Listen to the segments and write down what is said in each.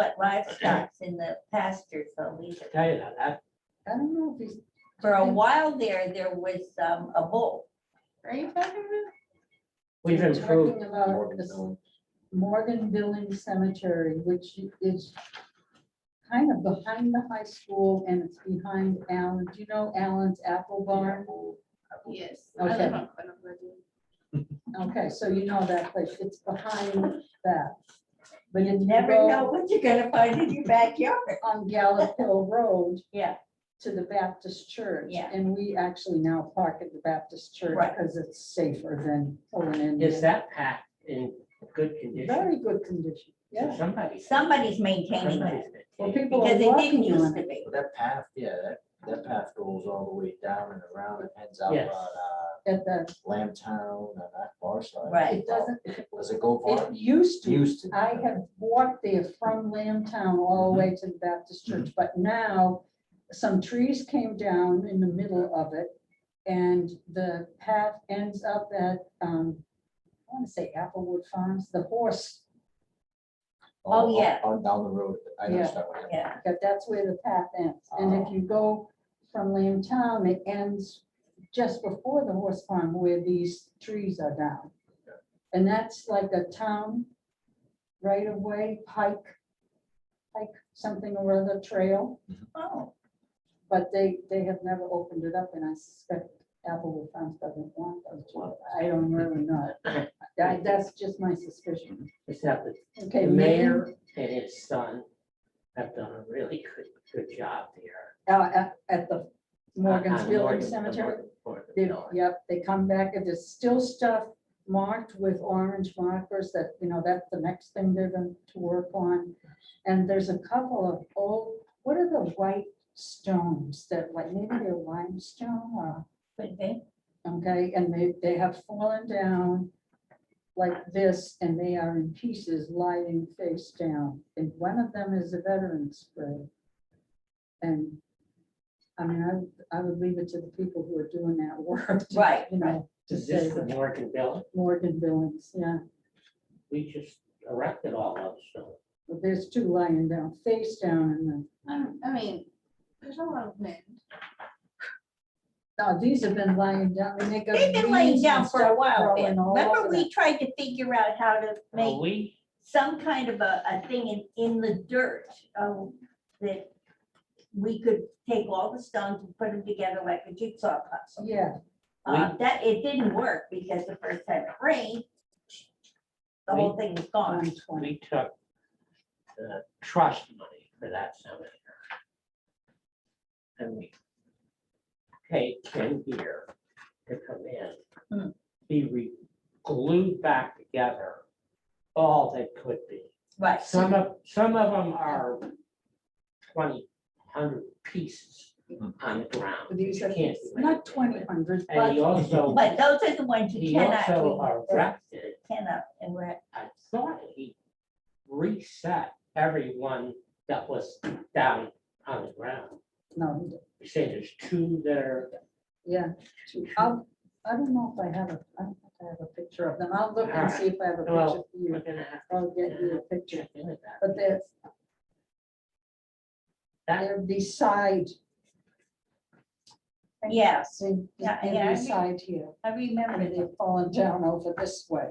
But livestock's in the pasture, so we, tell you that, that, I don't know if he's, for a while there, there was um, a bull. are you talking we've about? improved, Talking about this Morgan Building Cemetery, which is kind of behind the high school and it's behind Allen, do you know Allen's Apple Barn? Yes. I live Okay, so you know that place, it's behind that. But You if you never know go what you're gonna find in your backyard. on Gallup Hill Road, Yeah, to the Baptist church. Yeah. And we actually now park at the Baptist church Right. because it's safer than pulling in. is that path in good condition? Very good condition, yeah. Somebody. somebody's maintaining that somebody's Well, maintaining. people are because it didn't walking used on to it. be. Well, That path, yeah, that, that path goes all the way down and around and ends out on Yes. uh, At the, Lamb Town and that far side. Right. it doesn't, Does it go it far? used to. Mm-hmm. Used to. I have walked there from Lambtown all the way to the Baptist church, but now some trees came down in the middle of it. And the path ends up at, um, I want to say Applewood Farms, the horse, Oh, On- yeah. On down the road. I know Yeah. that one. Yeah, that that's where the path ends. And Oh. if you go from Lambtown, it ends just before the horse farm where these trees are down. And that's like a town right of way, pike, pike, something or other trail. oh, But they, they have never opened it up and I suspect Applewood Farms doesn't want those. Well- I don't really know. That, that's just my suspicion. It's that the Okay, the mayor, mayor and his son have done a really good, good job there. Uh, uh, at, at the Morgan's On Building Morgan- the Cemetery. Morgan- Morgan They, Building. yep, they come back and there's still stuff marked with orange markers that, you know, that's the next thing they're going to work on. And there's a couple of old, what are the white stones that like maybe they're limestone or, could be. okay, and they, they have fallen down like this and they are in pieces lying face down. And one of them is a veteran's grave. And I mean, I, I would leave it to the people who are doing that work. to, Right, You know, to Is this say the Morgan Building? Morgan Billings, yeah. We just erected all those, so. But There's two lying down, face down and then, I mean, there's a lot of wind. no, oh, these have been lying down. and they got They've been laying leaves and down for a stuff while, growing Ben. all Remember, over we them. tried to figure out how to make Well, we, some kind of a, a thing in, in the dirt, um, that we could take all the stones and put them together like a jigsaw puzzle. Yeah, Uh, that, it didn't work because the first time it rained, the whole thing was gone. on 20. we took the trust money for that cemetery. And we paid Ken Gear to come Hmm. in. He re- glued back together all that could be. Right, Some of, some of them are twenty hundred pieces on the ground. But These You are, can't do not anything twenty with. hundred, And he but also, but those are the ones you he cannot, also we erected cannot, and we're, I thought he reset everyone that was down on the ground. no, You say there's two that are, Yeah, I'll, I don't know if I have a, I don't think I have a picture of them. I'll look and see if I have a picture Ah, Well- for we're you. gonna have I'll get you a to picture, check into that. but they're, That- they're beside. Yeah. See, Yeah, yeah, I they're re- beside here, I remember and the they've fallen down over this way,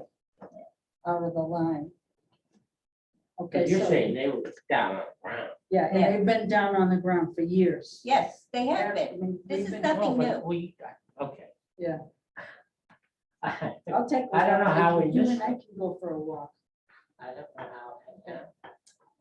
out of the line. Okay, But you're so, saying they were down on the ground. yeah, and Yeah. they've been down on the ground for years. Yes, they have Yeah, I been. mean, This we've is been- nothing Well, Oh, but new. We, okay. Yeah. I don't I'll take. I don't one. know how we You missed and I it. can go for a walk. know how, yeah.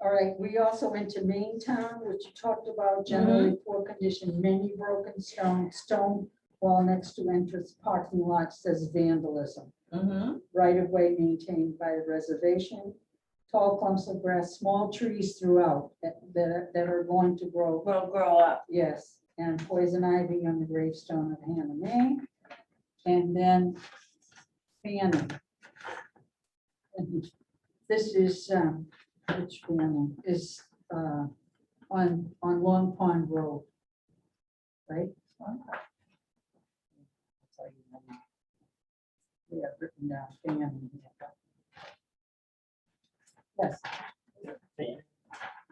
All right, we also went to Main Town, which you talked about, generally poor condition, many broken stone, stone wall next to entrance parking lot says vandalism. Mhm. Right of way maintained by reservation, tall clumps of grass, small trees throughout that, that are- that are going to grow, will grow up. yes. And poison ivy on the gravestone of Hannah May. And then Fanning. And This is, um, which Fanning is, uh, on, on Long Pond Road. Right? Yeah, written down, Fanning. Yes, Fan-